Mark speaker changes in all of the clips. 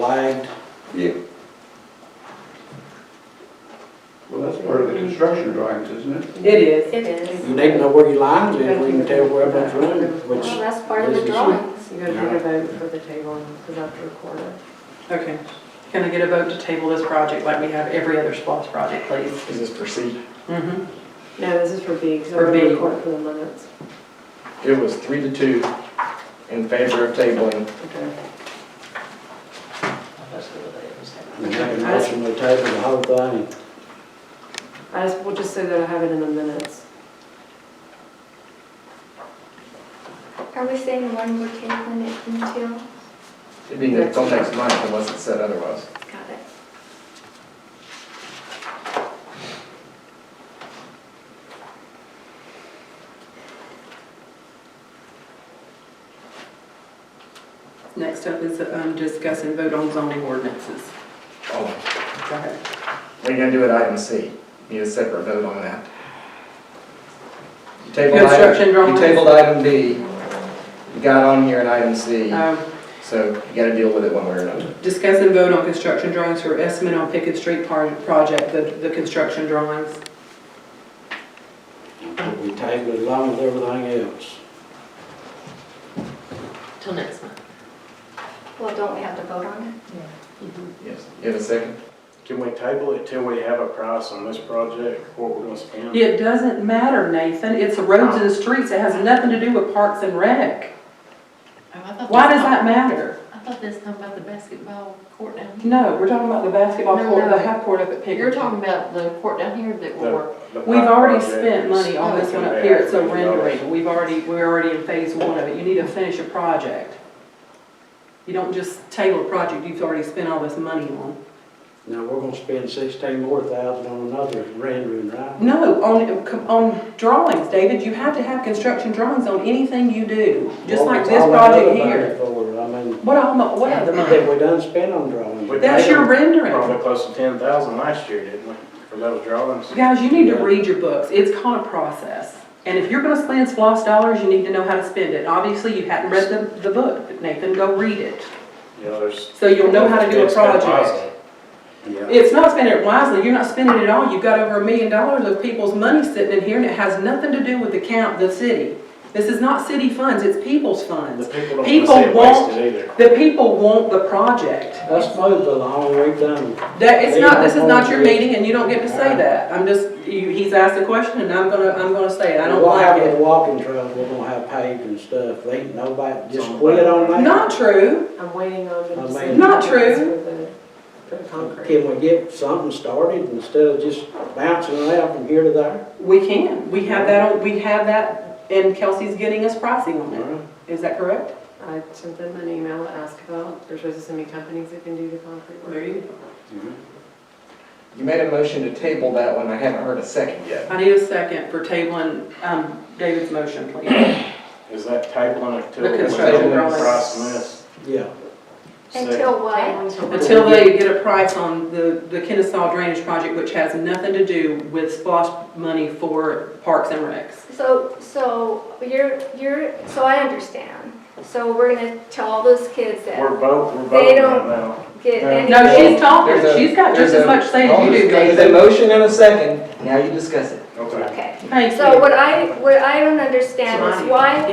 Speaker 1: flagged.
Speaker 2: Yeah,
Speaker 3: Well, that's part of the construction drawings, isn't it?
Speaker 4: It is.
Speaker 5: It is.
Speaker 1: You need to know where your lines is, where you can tell where everyone's running, which,
Speaker 5: Well, that's part of the
Speaker 1: This is-
Speaker 5: drawings.
Speaker 4: You gotta take a vote for the table and put up to record it. Okay. Can I get a vote to table this project like we have every other SPOS project, please?
Speaker 6: Is this for C?
Speaker 4: Mm-hmm.
Speaker 7: No, this is for B, because
Speaker 4: For
Speaker 7: I'm
Speaker 4: B.
Speaker 7: going to record for the minutes.
Speaker 6: It was three to two in favor of tabling.
Speaker 7: Okay.
Speaker 1: we make a motion to table the whole thing.
Speaker 7: I just, we'll just say that I have it in the minutes.
Speaker 5: Are we saying one more table it until?
Speaker 6: It'd be until next month unless it's said otherwise.
Speaker 5: Got it.
Speaker 4: Next up is um, discuss and vote on zoning ordinances.
Speaker 6: Oh,
Speaker 4: Go ahead.
Speaker 6: what are you gonna do at item C? Need a separate vote on that. You tabled
Speaker 4: Construction
Speaker 6: item, you
Speaker 4: drawings.
Speaker 6: tabled item B. You got on here at item C,
Speaker 4: Um,
Speaker 6: so you gotta deal with it one way or another.
Speaker 4: Discuss and vote on construction drawings for estimate on Pickett Street par- project, the, the construction drawings.
Speaker 1: We table it along with everything else.
Speaker 8: Till next month.
Speaker 5: Well, don't we have to vote on it?
Speaker 6: Yes. You have a second?
Speaker 9: Can we table it till we have a price on this project, what we're gonna spend?
Speaker 4: It doesn't matter, Nathan, it's roads and streets, it has nothing to do with parks and rec.
Speaker 8: Oh,
Speaker 4: Why does that matter?
Speaker 8: I thought this time about the basketball court down here.
Speaker 4: No, we're talking about the basketball
Speaker 8: No,
Speaker 4: court,
Speaker 8: no.
Speaker 4: the half court up at Pickett.
Speaker 8: You're talking about the court down here that will work.
Speaker 9: The
Speaker 4: We've
Speaker 9: pipe
Speaker 4: already
Speaker 9: project
Speaker 4: spent
Speaker 9: is-
Speaker 4: money on this one up here, it's a rendering, we've already, we're already in phase one of it, you need to finish your project. You don't just table a project you've already spent all this money on.
Speaker 1: Now, we're gonna spend sixteen more thousand on another rendering, right?
Speaker 4: No, on, on drawings, David, you have to have construction drawings on anything you do, just like this
Speaker 1: Well, it's all
Speaker 4: project
Speaker 1: that other
Speaker 4: here.
Speaker 1: money For, I mean,
Speaker 4: What all, mo- what other money?
Speaker 1: that we done spent on drawing.
Speaker 9: We
Speaker 4: That's your rendering.
Speaker 9: Probably close to ten thousand last year, didn't we, for those drawings?
Speaker 4: Guys, you need to
Speaker 1: Yeah.
Speaker 4: read your books, it's called a process. And if you're gonna spend SLOSS dollars, you need to know how to spend it. Obviously, you hadn't read the, the book, Nathan, go read it,
Speaker 9: You know, there's.
Speaker 4: so you'll know how to do a
Speaker 9: It's been
Speaker 4: project.
Speaker 9: wisely. Yeah.
Speaker 4: It's not spending it wisely, you're not spending it all, you've got over a million dollars of people's money sitting in here, and it has nothing to do with the count, the city. This is not city funds, it's people's funds.
Speaker 9: The people don't
Speaker 4: People
Speaker 9: wanna see it
Speaker 4: want-
Speaker 9: wasted either.
Speaker 4: The people want the project.
Speaker 1: Let's move along, we've done.
Speaker 4: That, it's
Speaker 1: They
Speaker 4: not, this is
Speaker 1: don't
Speaker 4: not your
Speaker 1: want it.
Speaker 4: meeting and you don't get to say that. I'm just, you, he's asked a question and I'm gonna, I'm gonna say it. I don't
Speaker 1: We'll have
Speaker 4: like
Speaker 1: the
Speaker 4: it.
Speaker 1: walking trails, we're gonna have paved and stuff, they ain't nobody, just quit on that.
Speaker 4: Not true.
Speaker 7: I'm waiting on the
Speaker 1: I
Speaker 7: decision.
Speaker 1: mean-
Speaker 4: Not true.
Speaker 7: For the, for the concrete.
Speaker 1: Can we get something started instead of just bouncing it out from here to there?
Speaker 4: We can. We have that, on we have that and Kelsey's getting us pricing on it. Is that correct?
Speaker 7: I sent them an email to ask about, there's supposed to send me companies that can do the concrete work.
Speaker 4: There you go.
Speaker 1: Mm-hmm.
Speaker 6: You made a motion to table that one. I haven't heard a second yet.
Speaker 4: I need a second for tabling, um, David's motion, please.
Speaker 9: Is that tabling it till?
Speaker 4: The
Speaker 9: we
Speaker 4: construction
Speaker 9: know the
Speaker 4: drawings.
Speaker 9: Price on this?
Speaker 1: Yeah,
Speaker 9: So-
Speaker 5: Until what?
Speaker 4: Until they get a price on the, the Kennesaw Drainage Project, which has nothing to do with SPOSS money for parks and recs.
Speaker 5: So, so you're, you're, so I understand. So we're gonna tell all those kids that
Speaker 9: We're both, we're both
Speaker 5: They
Speaker 9: right
Speaker 5: don't-
Speaker 9: now.
Speaker 5: get
Speaker 6: No.
Speaker 5: any.
Speaker 4: No, she's
Speaker 6: There's
Speaker 4: talking.
Speaker 6: a-
Speaker 4: She's got
Speaker 6: there's
Speaker 4: just as
Speaker 6: a- Oh,
Speaker 4: much say as you do,
Speaker 6: There's a
Speaker 4: David.
Speaker 6: motion and a second. Now you discuss it.
Speaker 9: Okay.
Speaker 5: Okay.
Speaker 4: Thank
Speaker 5: So
Speaker 4: you.
Speaker 5: what I, what I don't understand is why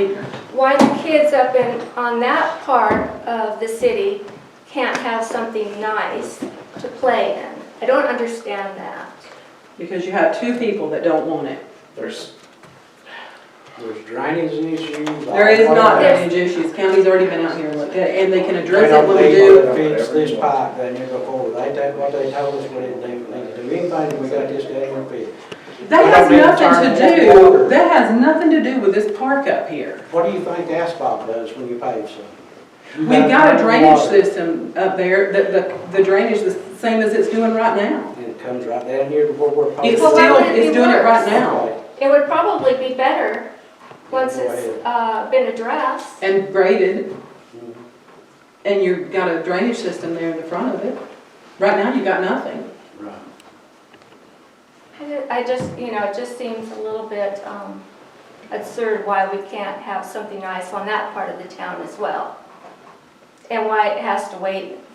Speaker 5: why the kids up in, on that part of the city can't have something nice to play in. I don't understand that.
Speaker 4: Because you have two people that don't want it.
Speaker 9: There's,
Speaker 1: there's drainage issues.
Speaker 4: There is not
Speaker 5: There's-
Speaker 4: drainage issues. County's already been out here and looked at it, and they can
Speaker 1: They
Speaker 4: address it
Speaker 1: don't
Speaker 4: when we
Speaker 1: need
Speaker 4: do.
Speaker 1: to fix this pipe down here before, they take what they told us we didn't do, we need to do anything, we got this down here fixed.
Speaker 4: That
Speaker 1: They
Speaker 4: has
Speaker 1: don't need to
Speaker 4: nothing
Speaker 1: turn
Speaker 4: to
Speaker 1: that
Speaker 4: do,
Speaker 1: water.
Speaker 4: that has nothing to do with this park up here.
Speaker 1: What do you think asphalt does when you pave something? You
Speaker 4: We've got a drainage
Speaker 1: water,
Speaker 4: system up there, that the, the drainage is the same as it's doing right now.
Speaker 1: And it comes right down here to where we're paving.
Speaker 4: It's
Speaker 5: Well, why
Speaker 4: still,
Speaker 5: would it be
Speaker 4: it's doing it right
Speaker 5: worse?
Speaker 4: now.
Speaker 5: It would probably be better once it's uh, been addressed.
Speaker 4: And graded,
Speaker 1: Mm-hmm.
Speaker 4: and you've got a drainage system there in the front of it. Right now, you got nothing.
Speaker 1: Right.
Speaker 5: I ju- I just, you know, it just seems a little bit um, absurd why we can't have something nice on that part of the town as well. And why it has to wait